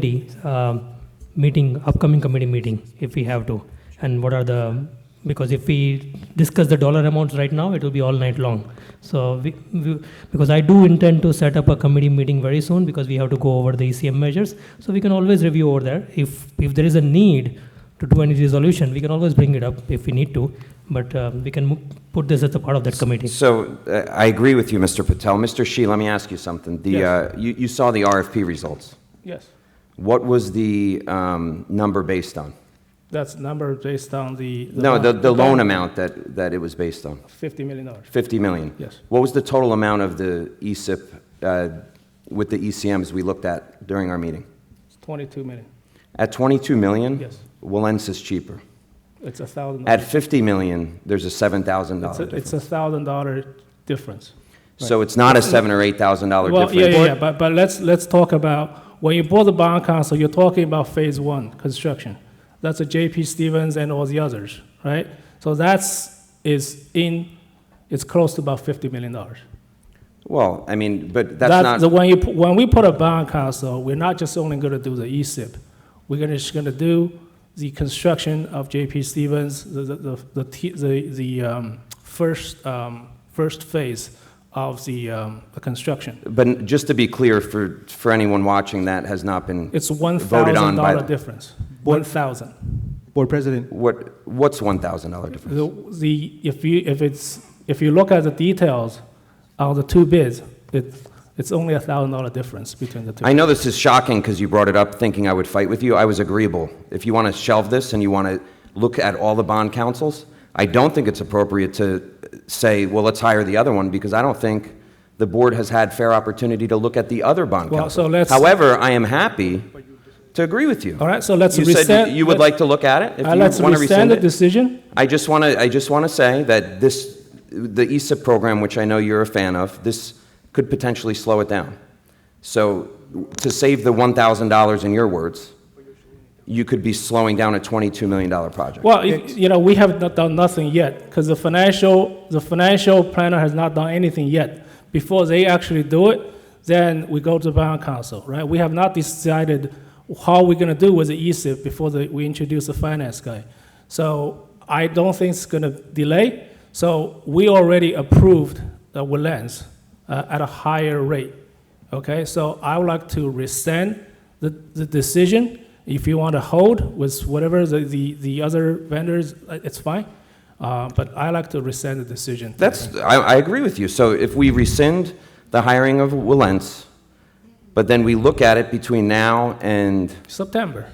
committee, um, meeting, upcoming committee meeting, if we have to, and what are the, because if we discuss the dollar amounts right now, it will be all night long. So, we, we- because I do intend to set up a committee meeting very soon, because we have to go over the ECM measures, so we can always review over there. If, if there is a need to do any resolution, we can always bring it up if we need to, but um, we can mo- put this as a part of that committee. So uh, I agree with you, Mr. Patel. Mr. Shi, let me ask you something. The, Yes. uh, you, you saw the RFP results. Yes, What was the um, number based on? that's number based on the. No, the, the loan loan amount that, that it was based on, Fifty million dollars. 50 million. Yes. What was the total amount of the E ESIP uh, with the ECMs we looked at during our meeting? It's twenty-two million. At 22 million? Yes. Willen's is cheaper. It's a thousand. At 50 million, there's a $7,000 It's a- difference. It's a thousand dollar difference. So it's not a 7 or $8,000 Well, yeah, difference. yeah, yeah, but, but let's, let's talk about, when you bought the bond council, you're talking about phase one construction. That's a JP Stevens and all the others, right? So that's, is in, it's close to about fifty million dollars. Well, I mean, but that's That's not. the, when you pu- when we put a bond council, we're not just only going to do the E ESIP. We're gonna, just going to do the construction of JP Stevens, the the the the, t- the, the um, first um, first phase of the, um, the construction. But just to be clear, for, for anyone watching, that has not been, It's one Voted on thousand by dollar the- difference. One thousand. Board President, what, what's $1,000 difference? The, the if you if it's if you look at the details of the two bids, it it's only a thousand dollar difference between the two. I know this is shocking because you brought it up thinking I would fight with you. I was agreeable. If you want to shelve this and you want to look at all the bond councils, I don't think it's appropriate to say, well, let's hire the other one because I don't think the board has had fair opportunity to look at the other bond Well, council. so let's- However, I am happy to agree with you. All right, so let's You said rescind- you- you would let- like to look at it? If Uh, you let's wanna rescind rescind the it? decision. I just want to, I just want to say that this, the ESIP program, which I know you're a fan of, this could potentially slow it down. So to save the $1,000 in your words, you could be slowing down a $22 million project. Well, you- you know, we have not done nothing yet, because the financial, the financial planner has not done anything yet. Before they actually do it, then we go to the bond council, right? We have not decided how we're gonna do with the E ESIP before the, we introduce the finance guy. So I don't think it's gonna delay, so we already approved the Woodlands uh, at a higher rate, okay? So I would like to rescind the, the decision. If you want to hold with whatever the, the, the other vendors, uh, it's fine. Uh, but I like to rescind the decision. That's, I, I agree with you. So if we rescind the hiring of Wilentz, but then we look at it between now and September.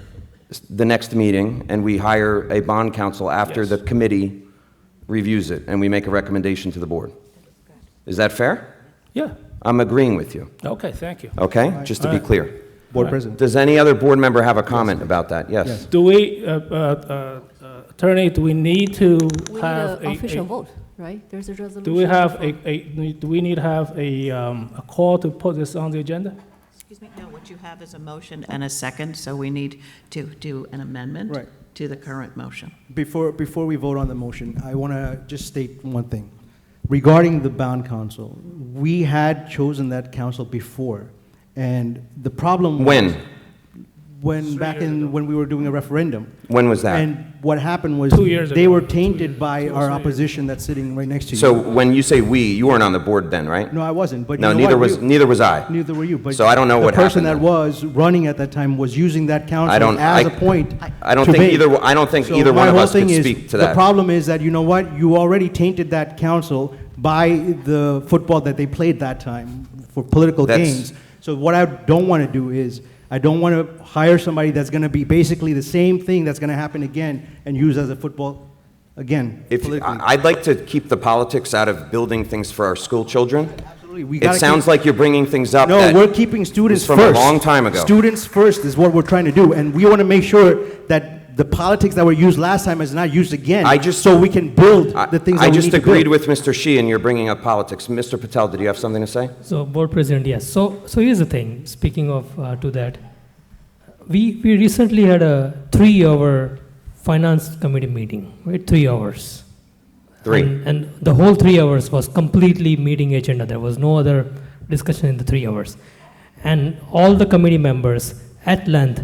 s- the next meeting, and we hire a bond counsel after Yes. the committee reviews it, and we make a recommendation to the board. Is that fair? Yeah. I'm agreeing with you, Okay. Thank you. okay? Just to be clear. Board President, Does any other board member have a comment about that? Yes. Do we, uh, uh, uh, uh, attorney? Do we need to We need have an official vote, right? There's a resolution. do we have a, a do we need to have a, um, a call to put this on the agenda? Excuse me, no, what you have is a motion and a second, so we need to do an amendment Right. to the current motion. before, before we vote on the motion, I want to just state one thing. Regarding the bond council, we had chosen that council before, and the problem was- When? When, back in, when we were doing a referendum. When was that? And what happened was, Two years they ago. were Two tainted years. by Two or our three years. opposition that's sitting right next to you. So when you say "we," you weren't on the board then, right? No, I wasn't, but you No, know neither what? was, You- neither was I. Neither were you, but. So I don't know what The person happened that then. was running at that time was using that I council don't- as I- a point I don't to think bait. either o- I don't think So either my one of whole us could thing is, speak to The that. problem is that, you know what, you already tainted that council by the football that they played that time for political That's- gains. So what I don't want to do is, I don't want to hire somebody that's going to be basically the same thing that's going to happen again and use as a football, again, If, politically. I- I'd like to keep the politics out of building things for our school children. Absolutely, we It gotta sounds keep- like you're bringing things up No, that we're keeping students was from first. a long time ago. Students first is what we're trying to do, and we want to make sure that the politics that were used last time is not used again. I just- so we can build I- the things that we need I just to agreed with build. Mr. Shi, and you're bringing up politics. Mr. Patel, did you have something to say? So, board president, yes. So, so here's the thing. Speaking of uh, to that, we we recently had a three-hour finance committee meeting, right? Three hours. Three. And, and the whole three hours was completely meeting agenda. There was no other discussion in the three hours, and all the committee members at length